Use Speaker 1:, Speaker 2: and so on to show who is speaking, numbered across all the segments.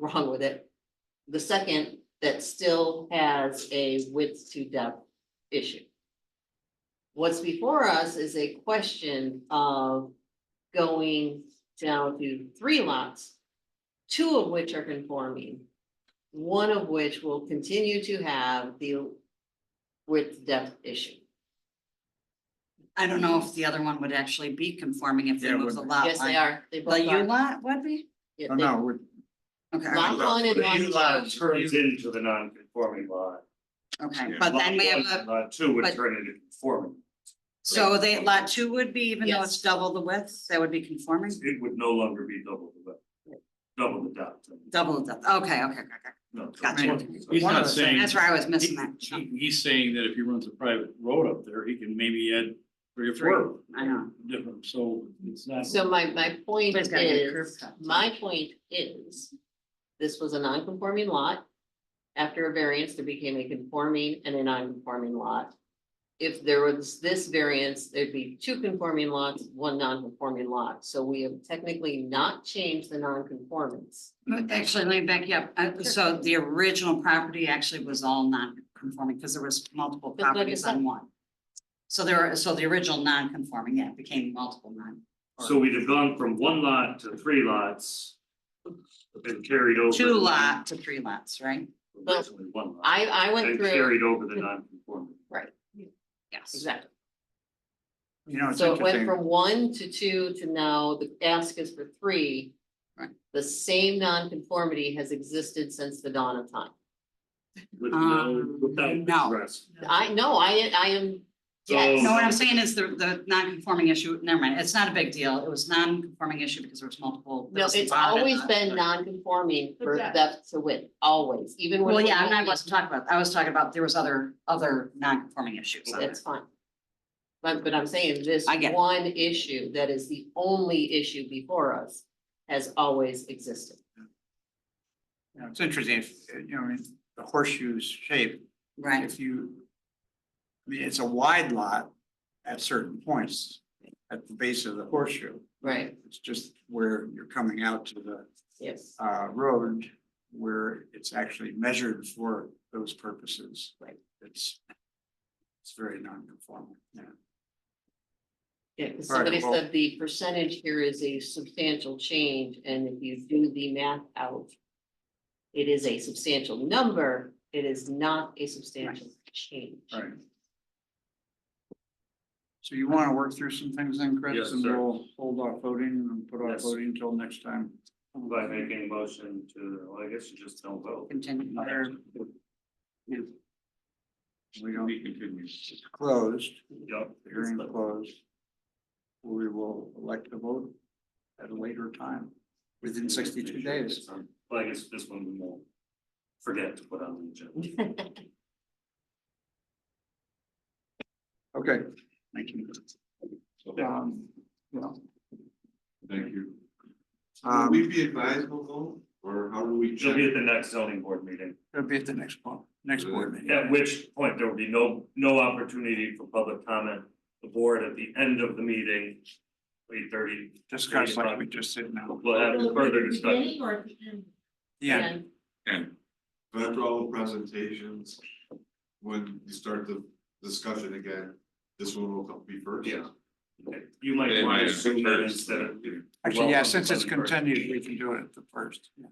Speaker 1: wrong with it. The second, that still has a width to depth issue. What's before us is a question of going down to three lots. Two of which are conforming, one of which will continue to have the width depth issue.
Speaker 2: I don't know if the other one would actually be conforming if they
Speaker 3: Yeah, it
Speaker 2: move the
Speaker 3: wouldn't.
Speaker 2: lot line.
Speaker 1: Yes, they are, they
Speaker 2: The
Speaker 1: both
Speaker 2: U
Speaker 1: are.
Speaker 2: lot would be?
Speaker 1: Yeah,
Speaker 3: Oh,
Speaker 1: they-
Speaker 3: no, we're-
Speaker 2: Okay, all
Speaker 1: Lot
Speaker 2: right,
Speaker 1: one and
Speaker 3: The U
Speaker 1: lot
Speaker 3: lot
Speaker 1: two.
Speaker 3: turns into the non-conforming lot.
Speaker 2: okay,
Speaker 3: Yeah,
Speaker 2: but then
Speaker 3: lot
Speaker 2: we have
Speaker 3: one
Speaker 2: a,
Speaker 3: and Lot two would
Speaker 2: but-
Speaker 3: turn into conforming.
Speaker 2: so they, lot two would be, even though
Speaker 1: Yes.
Speaker 2: it's double the width, that would be conforming?
Speaker 3: It would no longer be double the, width, double the depth.
Speaker 2: Double the, depth. okay, okay, okay, okay.
Speaker 3: No.
Speaker 2: Gotcha.
Speaker 4: He's
Speaker 2: One
Speaker 4: not
Speaker 2: of the-
Speaker 4: saying-
Speaker 2: That's where I was missing
Speaker 4: He-
Speaker 2: that.
Speaker 4: he- He's saying that if he runs a private road up there, he can maybe add three or four.
Speaker 2: I know.
Speaker 4: Different, so it's not.
Speaker 1: So my, my point
Speaker 2: But it's gotta be a curb
Speaker 1: is,
Speaker 2: cut.
Speaker 1: my point is, this was a non-conforming lot. After a variance, there became a conforming and a non-conforming lot. If there was this variance, there'd be two conforming lots, one non-conforming lot, so we have technically not changed the non-conformance.
Speaker 2: But Actually, let me back you up. Uh, so the original property actually was all non-conforming because there was multiple
Speaker 1: That's what I
Speaker 2: properties
Speaker 1: just said.
Speaker 2: on one. So there, are- so the original non-conforming, yeah, became multiple non. or
Speaker 3: So we'd have gone from one lot to three lots. And carried over.
Speaker 2: Two lot to three lots, right?
Speaker 3: Originally one lot.
Speaker 1: I, I went
Speaker 3: And
Speaker 1: through,
Speaker 3: carried over the non-conforming.
Speaker 2: Yes.
Speaker 1: exactly,
Speaker 3: You know,
Speaker 1: so it went from one to two to now the ask is for three.
Speaker 2: Right.
Speaker 1: The same non-conformity has existed since the dawn of time.
Speaker 3: With
Speaker 2: Um,
Speaker 3: no, without
Speaker 2: no.
Speaker 3: address.
Speaker 1: I, no, I, I am, yes.
Speaker 2: No, what I'm saying is the, the non-conforming issue, never mind, it's not a big deal. It was non-conforming issue because there was multiple. there
Speaker 1: No,
Speaker 2: was
Speaker 1: it's
Speaker 2: lot and
Speaker 1: always
Speaker 2: lot.
Speaker 1: been non-conforming for
Speaker 2: Exactly.
Speaker 1: depth to width, always, even when.
Speaker 2: Well,
Speaker 1: we
Speaker 2: yeah, I'm
Speaker 1: had
Speaker 2: not, I
Speaker 1: it,
Speaker 2: wasn't talking about, I was talking about there was other, other non-conforming issues. on
Speaker 1: That's
Speaker 2: it.
Speaker 1: fine. But, but I'm saying this
Speaker 2: I get it.
Speaker 1: one issue that is the only issue before us has always existed.
Speaker 5: You know, it's interesting, if, you know, in the horseshoe shape,
Speaker 2: Right,
Speaker 5: if you. I mean, it's a wide lot at certain points at the base of the horseshoe.
Speaker 1: Right.
Speaker 5: It's just where you're coming out to the
Speaker 1: Yes.
Speaker 5: uh road where it's actually measured for those purposes.
Speaker 1: Right.
Speaker 5: It's. It's very non-conforming, yeah.
Speaker 1: Yeah, 'cause
Speaker 5: All right,
Speaker 1: somebody
Speaker 5: well-
Speaker 1: said the percentage here is a substantial change, and if you do the math out. It is a substantial number, it is not a substantial change.
Speaker 5: Right. So you want to work through some things then, Chris?
Speaker 3: Yes,
Speaker 5: And
Speaker 3: sir.
Speaker 5: we'll hold off voting and put off
Speaker 3: Yes.
Speaker 5: voting until next time.
Speaker 3: By making a motion to, well, I guess you just don't vote.
Speaker 2: continue.
Speaker 5: We don't. Closed,
Speaker 3: Yep.
Speaker 5: the hearing closed. We will elect the vote at a later time, within sixty-two days.
Speaker 3: Well, I guess this one we won't forget to put on the agenda.
Speaker 5: Okay, thank you. Um, yeah.
Speaker 6: Thank you. Would
Speaker 5: Um,
Speaker 6: we be advisable though, or how do we
Speaker 3: She'll
Speaker 6: check?
Speaker 3: be at the next zoning board meeting,
Speaker 5: it'll be at the next one, next board meeting.
Speaker 3: at which point there will be no, no opportunity for public comment. The board at the end of the meeting, eight thirty,
Speaker 5: Just kind of like we just said now.
Speaker 3: will have further discussion.
Speaker 5: Yeah,
Speaker 6: And after all the presentations, when you start the discussion again, this one will come be first.
Speaker 3: Yeah. You might want to assume that instead of,
Speaker 5: actually, yeah, since it's continued, we can do it at the first. yeah.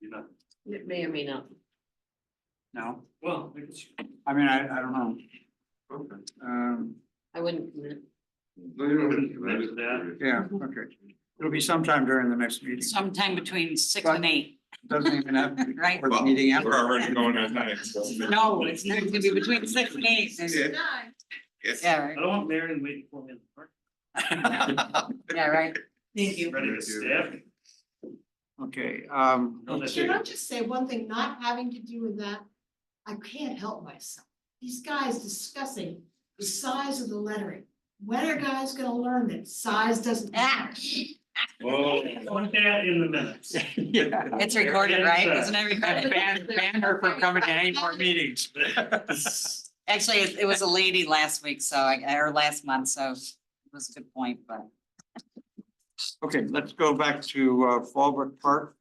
Speaker 3: you know,
Speaker 1: It may or may not.
Speaker 5: No,
Speaker 3: well, I guess you-
Speaker 5: I mean, I, I don't know.
Speaker 6: Okay.
Speaker 5: Um,
Speaker 1: I wouldn't, commit.
Speaker 6: No, you don't have to. I just-
Speaker 3: That-
Speaker 5: yeah,
Speaker 2: Mm-hmm.
Speaker 5: okay. It'll be sometime during the next meeting.
Speaker 2: Sometime between six and eight,
Speaker 5: Doesn't even have to be
Speaker 2: Right.
Speaker 5: for the meeting after.
Speaker 6: already going at nine. so-
Speaker 2: no, it's not gonna be between six and eight.
Speaker 6: Yeah. Yes.
Speaker 2: Yeah,
Speaker 3: I
Speaker 2: right,
Speaker 3: don't want Marion waiting for me in the park,
Speaker 2: yeah, right.
Speaker 7: Thank you.
Speaker 3: ready to stab. me.
Speaker 5: Okay, um,
Speaker 3: Don't let
Speaker 7: Can I
Speaker 3: you-
Speaker 7: just say one thing, not having to do with that, I can't help myself. These guys discussing the size of the lettering. When are guys gonna learn that size doesn't matter?
Speaker 3: Oh, put that in the minutes.
Speaker 5: yeah.
Speaker 2: It's recorded, right? Isn't it recorded?
Speaker 5: Ban, ban her from coming to any more meetings.
Speaker 2: Actually, it it was a lady last week, so I, or last month, so it was a good point, but.
Speaker 5: Okay, let's go back to uh, Fallbrook Park.